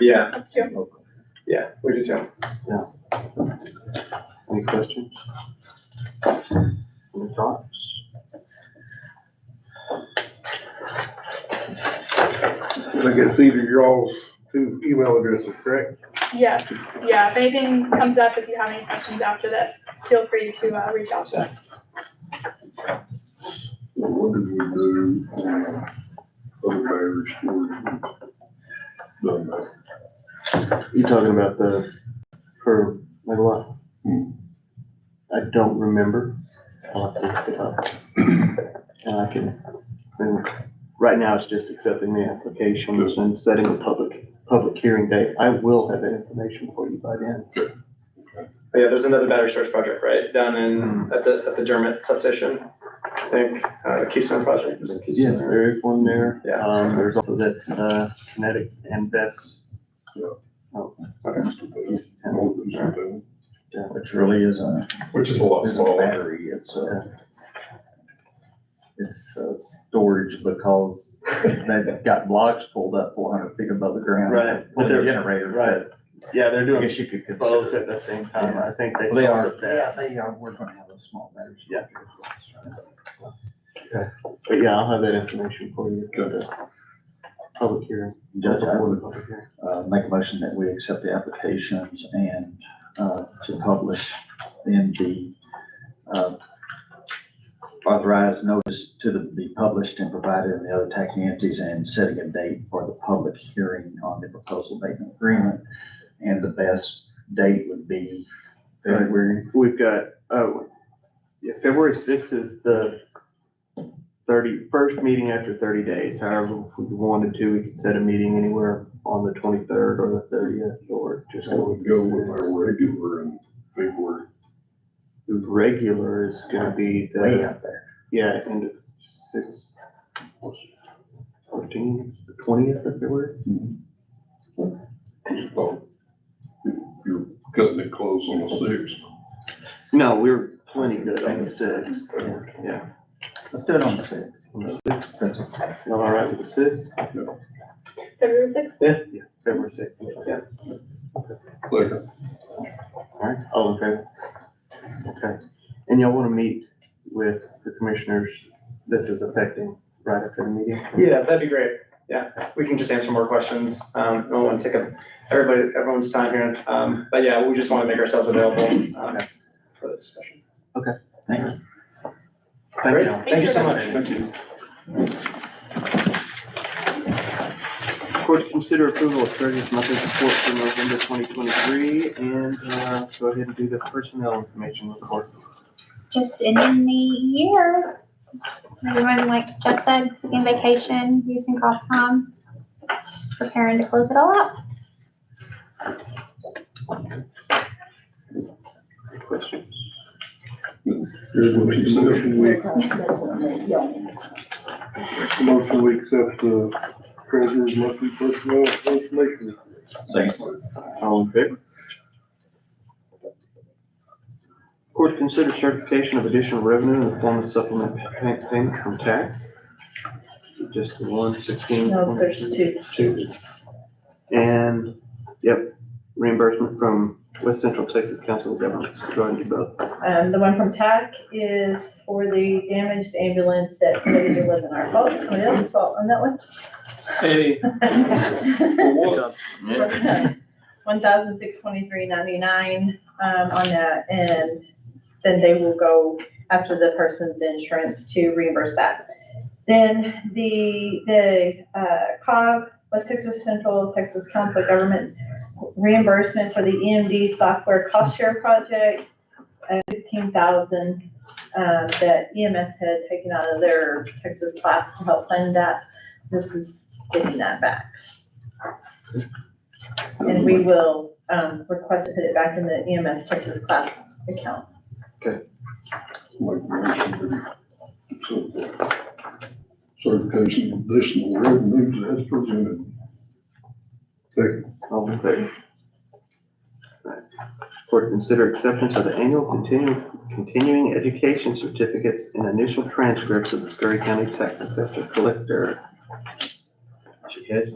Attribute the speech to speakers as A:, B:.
A: Yeah,
B: That's true.
A: yeah, we do too.
C: Any questions? Any thoughts?
D: I guess these are your all's two email addresses, correct?
B: Yes, yeah, if anything comes up, if you have any questions after this, feel free to, uh, reach out to us.
E: What did we do on other mayor's board? Done that.
C: You talking about the per megawatt?
E: Hmm.
C: I don't remember. I'll have to look it up. And I can, and right now it's just accepting the applications and setting a public, public hearing date. I will have that information for you by then.
A: But Oh, yeah, there's another battery storage project, right, down in, at the, at the Dermot substation, I think, uh, Keystone project was in Keystone.
C: Yes, there is one there.
A: Yeah.
C: Um, there's also that, uh, kinetic and Best.
E: Yeah.
C: Oh,
E: Thanks to them.
C: East Town.
E: More than something.
F: Which really is a,
E: Which is a lot
F: is a
E: smaller.
F: battery, it's a, it's a storage because they've got blocks pulled up four hundred feet above the ground.
C: Right.
F: For the generator.
C: Right. Yeah, they're
F: I
C: doing
F: guess you could
C: both
F: consider.
C: at the same time. I think they.
F: They
C: saw
F: are,
C: the
F: yeah,
C: best.
F: they are, we're gonna have a small battery.
C: Yeah. But yeah, I'll have that information for you. at the Public hearing.
F: Judge, I would,
C: Public hearing.
F: uh, make a motion that we accept the applications and, uh, to publish in the, uh, authorized notice to the, be published and provided in the other taxing entities and setting a date for the public hearing on the proposal abatement agreement. And the best date would be February.
C: We've got, oh, yeah, February sixth is the thirty, first meeting after thirty days. However, if we wanted to, we could set a meeting anywhere on the twenty-third or the thirtieth or just.
E: I would go with our regular and February.
C: The regular is gonna be
F: Way
C: the,
F: out there.
C: yeah, end of six, fourteen, twentieth of February.
E: Just thought, If Oh, you're cutting it close on the sixth.
C: No, we were plenty good on the sixth. Yeah.
F: Let's do it on the sixth.
C: On the sixth,
F: That's okay.
C: y'all all right with the sixth?
B: February sixth,
C: Yeah. February sixth, yeah.
E: Second,
C: Alright, all in favor? Okay, and y'all wanna meet with the commissioners, this is affecting right after the meeting?
A: Yeah, that'd be great, yeah, we can just answer more questions, um, I don't wanna take up everybody, everyone's time here, um, but yeah, we just wanna make ourselves available, um, for the discussion.
F: Thank you.
C: Thank
A: Great,
C: y'all.
A: thank you so much.
E: thank you.
C: Court to consider approval of treasurer's monthly report for November twenty twenty-three, and, uh, let's go ahead and do the personnel information report.
G: just ending the year. Everyone, like Jeff said, in vacation, using golf prom, just preparing to close it all out.
C: Any questions?
E: Here's what she
D: Motion
E: said.
D: we, motion we accept the treasurer's monthly personnel information.
F: Thanks.
C: All in favor? Court to consider certification of additional revenue in the form of supplement pay- payment from TAC. Just the one sixteen.
H: No, there's two.
C: two. And, yep, reimbursement from West Central Texas Council of Governments. Go ahead and do both.
H: Um, the one from TAC is for the damaged ambulance that stated it wasn't our fault, somebody else's fault on that
C: Hey.
H: one.
F: Yeah.
H: One thousand six twenty-three ninety-nine, um, on that, and then they will go after the person's insurance to reimburse that. Then the, the, uh, COG, West Texas Central Texas Council of Governments reimbursement for the EMD software cost share project uh, fifteen thousand um, that EMS had taken out of their Texas class to help fund that. This is getting that back. And we will um, request to put it back in the EMS Texas class account.
E: Like motion to accept the Certification of additional revenues as presented.
C: All in favor? Alright. Court to consider acceptance of the annual continuing, continuing education certificates and initial transcripts of the Scurry County Tax Assessor Collector. She has